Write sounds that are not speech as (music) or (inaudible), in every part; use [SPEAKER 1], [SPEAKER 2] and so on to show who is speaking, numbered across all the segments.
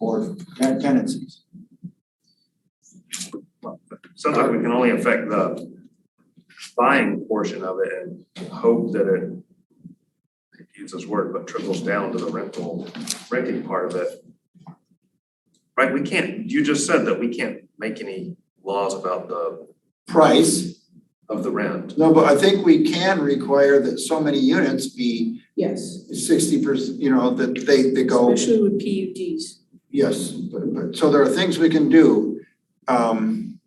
[SPEAKER 1] or ten- tenancies.
[SPEAKER 2] Sounds like we can only affect the buying portion of it and hope that it I hate to use this word, but trickles down to the rental, renting part of it. Right, we can't, you just said that we can't make any laws about the,
[SPEAKER 1] Price,
[SPEAKER 2] of the rent.
[SPEAKER 1] no, but I think we can require that so many units be
[SPEAKER 3] Yes,
[SPEAKER 1] sixty percent, you know, that they, they go,
[SPEAKER 3] especially with PUDs.
[SPEAKER 1] yes, but, but, so there are things we can do. Um,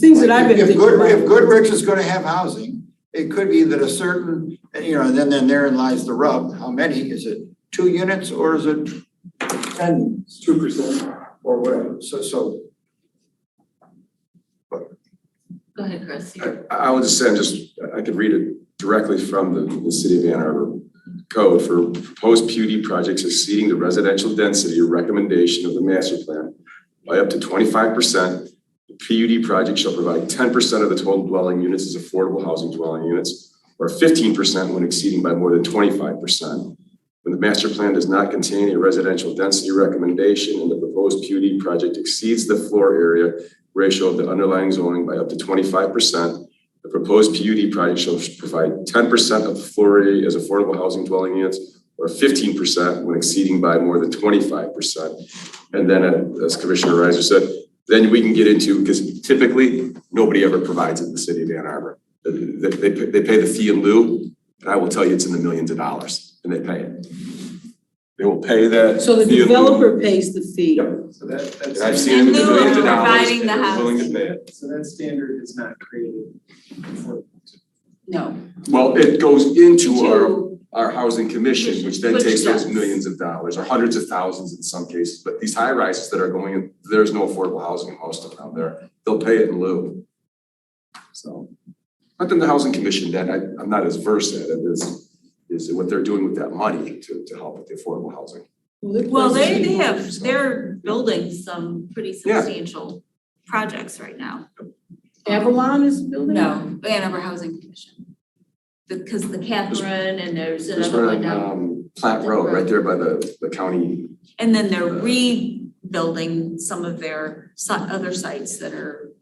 [SPEAKER 3] Things that I've been
[SPEAKER 1] If
[SPEAKER 3] thinking
[SPEAKER 1] Good, if
[SPEAKER 3] about.
[SPEAKER 1] Goodrich is gonna have housing, it could be that a certain, and, you know, and then, then therein lies the rub, how many, is it two units or is it ten? Two percent. Or whatever, so, so,
[SPEAKER 4] Go ahead, Chris.
[SPEAKER 5] I, I would just say, I'm just, I could read it directly from the, the city of Ann Arbor code for proposed PUD projects exceeding the residential density recommendation of the master plan by up to twenty-five percent. The PUD project shall provide ten percent of the total dwelling units as affordable housing dwelling units or fifteen percent when exceeding by more than twenty-five percent. When the master plan does not contain a residential density recommendation and the proposed PUD project exceeds the floor area ratio of the underlying zoning by up to twenty-five percent. The proposed PUD project shall provide ten percent of the floor area as affordable housing dwelling units or fifteen percent when exceeding by more than twenty-five percent. And then, uh, as Commissioner Reiser said, then we can get into, because typically, nobody ever provides it in the city of Ann Arbor. They, they, they pay- they pay the fee in lieu, and I will tell you, it's in the millions of dollars, and they pay it. They will pay that.
[SPEAKER 3] So the
[SPEAKER 5] fee in lieu.
[SPEAKER 3] developer pays the fee.
[SPEAKER 5] Yep.
[SPEAKER 6] So that,
[SPEAKER 5] And I've
[SPEAKER 6] that's,
[SPEAKER 5] seen it in the
[SPEAKER 4] In lieu of
[SPEAKER 5] millions of dollars,
[SPEAKER 4] providing
[SPEAKER 5] and
[SPEAKER 4] the
[SPEAKER 5] they're willing
[SPEAKER 4] house.
[SPEAKER 5] to pay it.
[SPEAKER 6] so that standard is not created for
[SPEAKER 4] No.
[SPEAKER 5] Well, it goes into our,
[SPEAKER 4] To-
[SPEAKER 5] our housing commission, which then
[SPEAKER 4] Which
[SPEAKER 5] takes those
[SPEAKER 4] does.
[SPEAKER 5] millions of dollars, or hundreds of thousands in some cases, but these high rises that are going, in, there's no affordable housing in most of them out there, they'll pay it in lieu. So, but then the housing commission, then I, I'm not as versed at it as, is what they're doing with that money to, to help with the affordable housing.
[SPEAKER 3] Well, it
[SPEAKER 4] Well, they,
[SPEAKER 3] costs-
[SPEAKER 4] they have, they're building some pretty substantial projects right now.
[SPEAKER 3] Avalon is building?
[SPEAKER 4] No, Ann Arbor Housing Commission. Because the Catherine and there's
[SPEAKER 5] There's
[SPEAKER 4] another
[SPEAKER 5] one
[SPEAKER 4] one
[SPEAKER 5] on,
[SPEAKER 4] down,
[SPEAKER 5] um, Platte Road, right there by the, the county,
[SPEAKER 4] and then they're rebuilding some of their si- other sites that are,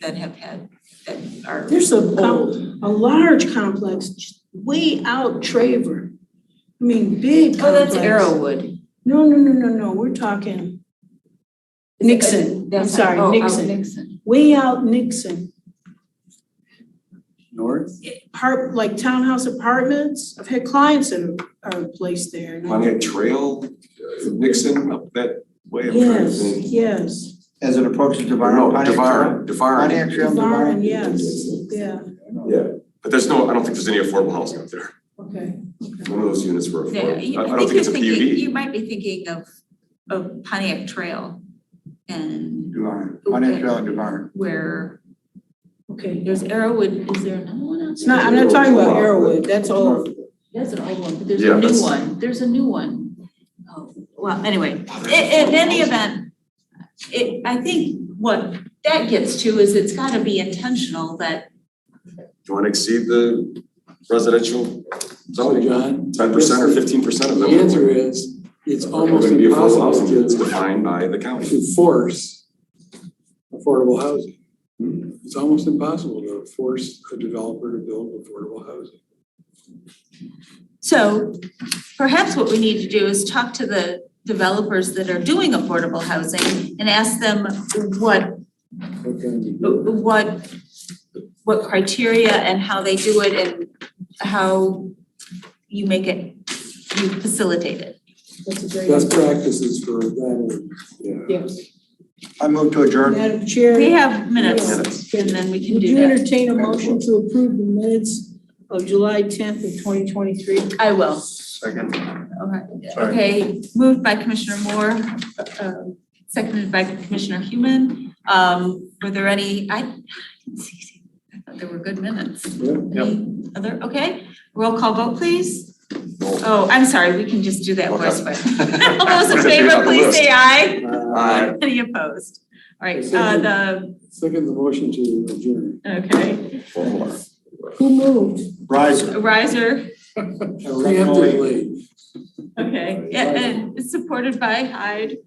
[SPEAKER 4] that have had, that are.
[SPEAKER 3] There's a, com-
[SPEAKER 4] old.
[SPEAKER 3] a large complex just way out Traver. I mean, big
[SPEAKER 4] Oh, that's
[SPEAKER 3] complex.
[SPEAKER 4] Arrowwood.
[SPEAKER 3] No, no, no, no, no, we're talking Nixon, I'm
[SPEAKER 4] That's-
[SPEAKER 3] sorry,
[SPEAKER 4] oh, out
[SPEAKER 3] Nixon,
[SPEAKER 4] Nixon.
[SPEAKER 3] way out Nixon.
[SPEAKER 6] north.
[SPEAKER 3] Part, like townhouse apartments, I've had clients that are are placed there. and I-
[SPEAKER 5] Pontiac Trail, uh, Nixon, up that way. I'm trying to
[SPEAKER 3] Yes,
[SPEAKER 5] think.
[SPEAKER 3] yes.
[SPEAKER 1] as it approaches
[SPEAKER 5] No,
[SPEAKER 1] Devon.
[SPEAKER 5] Devon, Devon.
[SPEAKER 1] Pontiac Trail.
[SPEAKER 3] Varn, yes, yeah,
[SPEAKER 5] Yeah, but there's no, I don't think there's any affordable housing up there.
[SPEAKER 3] okay.
[SPEAKER 5] None of those units were
[SPEAKER 4] Yeah,
[SPEAKER 5] affordable.
[SPEAKER 4] you-
[SPEAKER 5] I I
[SPEAKER 4] I think
[SPEAKER 5] don't think
[SPEAKER 4] you're
[SPEAKER 5] it's a
[SPEAKER 4] thinking,
[SPEAKER 5] PUD.
[SPEAKER 4] you might be thinking of, of Pontiac Trail and
[SPEAKER 1] Devon, Pontiac Trail and Devon.
[SPEAKER 4] where,
[SPEAKER 3] Okay,
[SPEAKER 4] there's Arrowwood, is there another one out
[SPEAKER 3] it's
[SPEAKER 4] there?
[SPEAKER 3] not, I'm not talking about Arrowwood, that's old.
[SPEAKER 4] That's an old one, but there's
[SPEAKER 5] Yeah,
[SPEAKER 4] a new
[SPEAKER 5] that's-
[SPEAKER 4] one, there's a new one. Oh, well, anyway, i- in any event, it, I think what that gets to is it's gotta be intentional that,
[SPEAKER 5] Do you want to exceed the residential zoning, John? Ten percent or fifteen percent of them?
[SPEAKER 7] The answer is, it's
[SPEAKER 5] are
[SPEAKER 7] almost
[SPEAKER 5] gonna be affordable
[SPEAKER 7] impossible
[SPEAKER 5] housing units
[SPEAKER 7] to,
[SPEAKER 5] defined by the county.
[SPEAKER 7] to force affordable housing.
[SPEAKER 5] Hmm?
[SPEAKER 7] It's almost impossible to force a developer to build affordable housing.
[SPEAKER 4] so perhaps what we need to do is talk to the developers that are doing affordable housing and ask them what
[SPEAKER 7] What can you
[SPEAKER 4] Oh,
[SPEAKER 7] do?
[SPEAKER 4] what, what criteria and how they do it and how you make it, you facilitate it.
[SPEAKER 3] That's a great,
[SPEAKER 7] Best practices for that, yeah.
[SPEAKER 3] yes.
[SPEAKER 1] I move to adjourn.
[SPEAKER 3] (laughs) Madam Chair.
[SPEAKER 4] We have minutes and then we can
[SPEAKER 3] Would
[SPEAKER 4] do
[SPEAKER 3] you
[SPEAKER 4] that.
[SPEAKER 3] entertain a motion to approve the minutes of July tenth of twenty twenty-three?
[SPEAKER 4] I will.
[SPEAKER 2] Second.
[SPEAKER 4] Okay,
[SPEAKER 2] Sorry.
[SPEAKER 4] okay, moved by Commissioner Moore, uh, seconded by Commissioner Human. Um, were there any, I, I didn't see, I thought there were good minutes.
[SPEAKER 7] Yeah.
[SPEAKER 4] Any other, okay, roll call vote, please. Oh, I'm sorry, we can just do that voice vote. All those in favor, please say aye.
[SPEAKER 7] Uh,
[SPEAKER 5] Aye.
[SPEAKER 4] Any opposed? All right, uh, the,
[SPEAKER 7] Second, the motion to adjourn.
[SPEAKER 4] okay,
[SPEAKER 3] Who moved?
[SPEAKER 1] Riser.
[SPEAKER 4] riser,
[SPEAKER 7] Preemptively.
[SPEAKER 4] okay, yeah, and it's supported by Hyde.